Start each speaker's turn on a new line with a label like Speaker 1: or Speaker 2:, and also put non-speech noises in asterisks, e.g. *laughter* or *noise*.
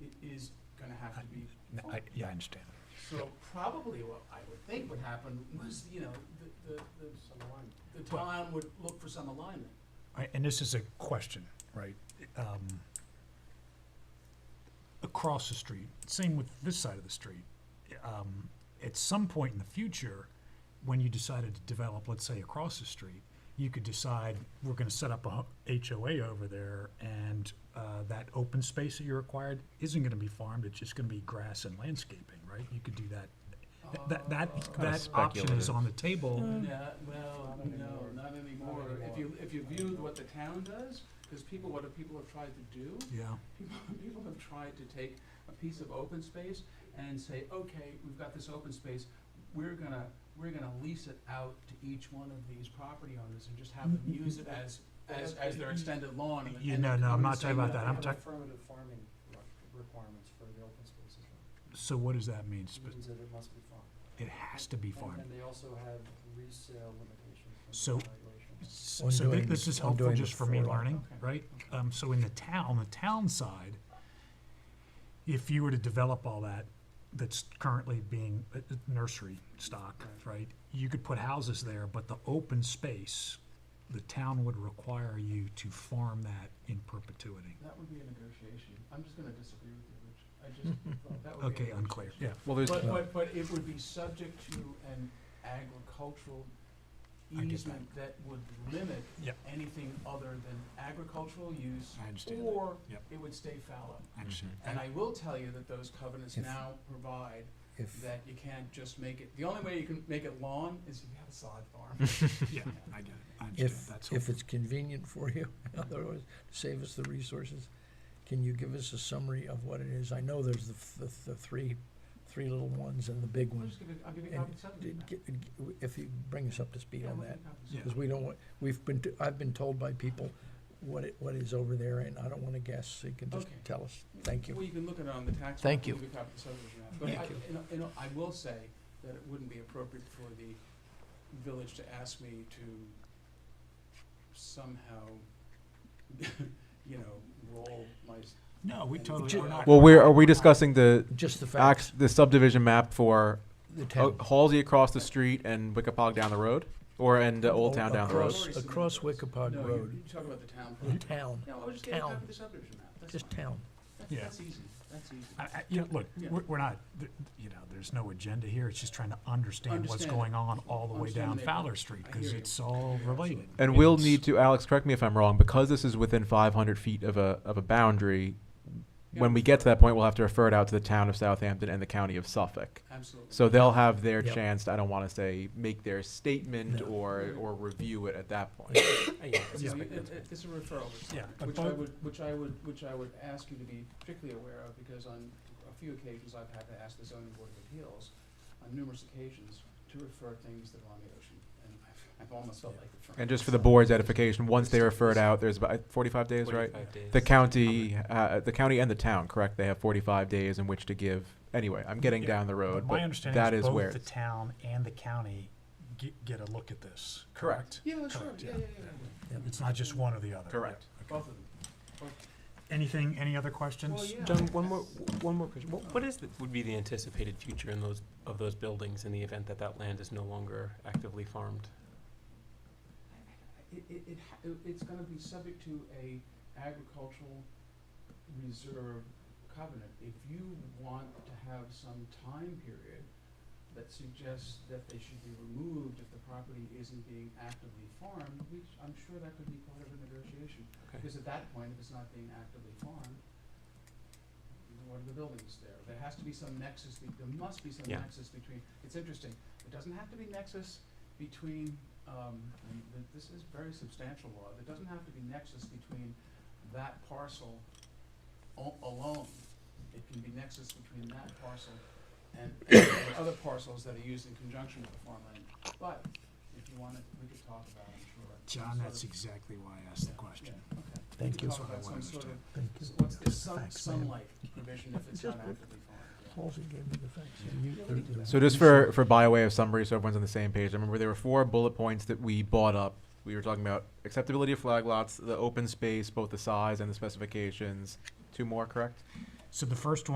Speaker 1: it is gonna have to be
Speaker 2: No, I, yeah, I understand.
Speaker 1: So probably what I would think would happen was, you know, the, the, the, the town would look for some alignment.
Speaker 2: All right, and this is a question, right? Um, across the street, same with this side of the street. Um, at some point in the future, when you decided to develop, let's say, across the street, you could decide we're going to set up a h- HOA over there, and uh, that open space that you required isn't going to be farmed. It's just going to be grass and landscaping, right? You could do that. Th- That that,
Speaker 1: Uh,
Speaker 2: that option is
Speaker 3: speculative.
Speaker 2: on the table.
Speaker 1: Yeah, well, no, not anymore. If you, if you viewed what the town does, because people, what do people have tried to do?
Speaker 2: Yeah.
Speaker 1: People, *laughs* people have tried to take a piece of open space and say, okay, we've got this open space, we're gonna, we're gonna lease it out to each one of these property owners and just have
Speaker 2: *laughs*
Speaker 1: them use it as, as, as their extended lawn. and-
Speaker 2: You
Speaker 1: and
Speaker 2: know, no, I'm
Speaker 1: the
Speaker 2: not talking
Speaker 1: same-
Speaker 2: about that. I'm talking.
Speaker 4: affirmative farming re- requirements for the open spaces. now.
Speaker 2: So what does that mean?
Speaker 4: It means that it must be farmed.
Speaker 2: It has to be
Speaker 4: And-
Speaker 2: farmed.
Speaker 4: And they also have resale limitations
Speaker 2: So-
Speaker 4: from the valuation.
Speaker 2: S- So thi-
Speaker 3: Undoing-
Speaker 2: this is helpful
Speaker 3: undoing
Speaker 2: just
Speaker 3: the
Speaker 2: for me
Speaker 1: *laughs*
Speaker 3: fraud.
Speaker 2: learning,
Speaker 1: Okay.
Speaker 2: right? Um, so in the town, on the town side, if you were to develop all that, that's currently being uh, uh, nursery stock, right? You could put houses there, but the open space, the town would require you to farm that in perpetuity.
Speaker 1: That would be a negotiation. I'm just gonna disagree with you, Rich. I just, that would be. a
Speaker 2: Hmm. Okay, unclear,
Speaker 1: negotiation.
Speaker 2: yeah.
Speaker 3: Well, there's,
Speaker 1: But, but, but it would be subject to an agricultural
Speaker 2: I get that.
Speaker 1: easement that would limit
Speaker 2: Yep.
Speaker 1: anything other than agricultural use,
Speaker 2: I understand, that.
Speaker 1: or
Speaker 2: Yep.
Speaker 1: it would stay fallow.
Speaker 2: I understand.
Speaker 1: And I will tell you that those covenants
Speaker 3: If-
Speaker 1: now provide
Speaker 3: if,
Speaker 1: that you can't just make it, the only way you can make it lawn is if you have a solid farm.
Speaker 2: Yeah, I get it, I understand,
Speaker 3: if,
Speaker 2: that's
Speaker 3: if
Speaker 2: helpful.
Speaker 3: it's convenient for you, *laughs* in other words, save us the resources, can you give us a summary of what it is? I know there's the, f- the, the three, three little ones and the big
Speaker 1: I'll
Speaker 3: one.
Speaker 1: just give you, I'll give you a
Speaker 3: Mm. And
Speaker 1: copy of something.
Speaker 3: Did- g- g- If you bring us up to speed
Speaker 1: Yeah,
Speaker 3: on
Speaker 1: we'll
Speaker 3: that,
Speaker 1: give you a copy of
Speaker 2: Yeah.
Speaker 3: because we don't want, we've been, t- I've been told by people what it, what is over there, and I don't wanna guess, so you can just
Speaker 1: Okay.
Speaker 3: tell us. Thank you.
Speaker 1: Well, you can look at it on the tax.
Speaker 3: Thank
Speaker 1: map,
Speaker 3: you.
Speaker 1: we have the subdivision map. But
Speaker 3: Thank
Speaker 1: I,
Speaker 3: you.
Speaker 1: you know- you know, I will say that it wouldn't be appropriate for the village to ask me to somehow, *laughs* you know, roll my, s-
Speaker 2: No, we totally,
Speaker 1: Ju-
Speaker 2: we're not.
Speaker 5: Well, we're, are we discussing the
Speaker 3: Just the
Speaker 5: facts,
Speaker 3: facts,
Speaker 5: the subdivision map for
Speaker 3: the
Speaker 5: Ho-
Speaker 3: town.
Speaker 5: Halsey across the street and Wickapog down the road? Or, and uh, Old
Speaker 3: Oh,
Speaker 5: Town down the road?
Speaker 3: Across,
Speaker 1: Already submitted
Speaker 3: across
Speaker 1: those.
Speaker 3: Wickapog
Speaker 1: no, you-
Speaker 3: Road,
Speaker 1: you talk about the town.
Speaker 3: the
Speaker 2: Hmm?
Speaker 1: plan.
Speaker 3: town,
Speaker 1: No, I'll just get a copy
Speaker 3: town.
Speaker 1: of the subdivision map, that's
Speaker 3: just
Speaker 1: fine.
Speaker 3: town.
Speaker 1: That's,
Speaker 2: Yeah.
Speaker 1: that's easy, that's easy.
Speaker 2: I, I, you know, look,
Speaker 1: Yeah.
Speaker 2: we're, we're not, th- you know, there's no agenda here, it's just trying to understand what's
Speaker 1: Understand.
Speaker 2: going on all the way
Speaker 1: Understand
Speaker 2: down
Speaker 1: the
Speaker 2: Fowler
Speaker 1: neighborhood.
Speaker 2: Street,
Speaker 1: I
Speaker 2: cause
Speaker 1: hear you.
Speaker 2: it's all
Speaker 1: Yeah,
Speaker 2: related.
Speaker 5: And we'll
Speaker 2: It's-
Speaker 5: need to, Alex, correct me if I'm wrong, because this is within 500 feet of a, of a boundary, when
Speaker 1: Yeah.
Speaker 5: we get to that point, we'll have to refer it out to the town of Southampton and the county of Suffolk.
Speaker 1: Absolutely.
Speaker 5: So they'll have their
Speaker 3: Yep.
Speaker 5: chance, to, I don't want to say, make their statement
Speaker 3: No.
Speaker 5: or,
Speaker 1: Mm.
Speaker 5: or review it at
Speaker 2: *coughs*
Speaker 5: that point.
Speaker 1: So
Speaker 2: Yeah.
Speaker 1: you- it- it- It's a referral
Speaker 2: Yeah,
Speaker 1: requirement,
Speaker 2: but
Speaker 1: which I
Speaker 2: both-
Speaker 1: would, which I would, which I would ask you to be particularly aware of, because on a few occasions, I've had to ask the zoning board of appeals, on numerous occasions, to refer things that are on the ocean, and I've, I've almost felt like referring.
Speaker 5: And just for the board's edification, once they refer it out, there's about 45 days, right? The county, uh, the county and the town, correct? They have forty-five days in which to give. Anyway, I'm getting
Speaker 2: Yeah,
Speaker 5: down the road,
Speaker 2: My
Speaker 5: but
Speaker 2: understanding
Speaker 5: that
Speaker 2: is
Speaker 5: is where.
Speaker 2: both the town and the county get, get a look at this, correct?
Speaker 5: Correct.
Speaker 1: Yeah, sure,
Speaker 2: Correct,
Speaker 1: yeah,
Speaker 2: yeah.
Speaker 1: yeah, yeah, yeah.
Speaker 3: Yeah,
Speaker 2: It's not just one or the other.
Speaker 5: Correct.
Speaker 2: Yeah,
Speaker 1: Both
Speaker 2: okay.
Speaker 1: of them.
Speaker 2: Anything, any other questions?
Speaker 1: Well, yeah.
Speaker 6: John, one more, one more question. What, what is, the- would be the anticipated future in those, of those buildings in the event that that land is no longer actively farmed?
Speaker 1: It, it, it, ha- it- it's gonna be subject to a agricultural reserve covenant. If you want to have some time period that suggests that they should be removed if the property isn't being actively farmed, which I'm sure that could be part of a negotiation.
Speaker 6: Okay.
Speaker 1: Because at that point, if it's not being actively farmed, what are the buildings there? There has to be some nexus, be- there must be some
Speaker 6: Yeah.
Speaker 1: nexus between, it's interesting, it doesn't have to be nexus between, um, and th- this is very substantial law, there doesn't have to be nexus between that parcel o- alone. It can be nexus between that parcel and and other parcels that are used in conjunction with the farmland. But if you wanted, we could talk about, I'm sure. some
Speaker 2: John,
Speaker 1: sort
Speaker 2: that's
Speaker 1: of-
Speaker 2: exactly why I asked the
Speaker 1: yeah,
Speaker 2: question.
Speaker 1: yeah, okay. We
Speaker 3: Thank
Speaker 1: could
Speaker 3: you.
Speaker 1: talk
Speaker 2: That's what I
Speaker 1: about
Speaker 2: wanna
Speaker 1: some sort of
Speaker 2: understand.
Speaker 3: Thank you.
Speaker 1: so What's the sun,
Speaker 3: Thanks, man.
Speaker 1: sunlight provision if it's not actively farmed?
Speaker 3: Halsey gave me the facts. and you-
Speaker 1: Yeah, we can do that.
Speaker 5: So just for, for by way of summary, so everyone's on the same page, I remember there were four bullet points that we bought up. We were talking about acceptability of flag lots, the open space, both the size and the specifications. Two more, correct?
Speaker 2: So the first one.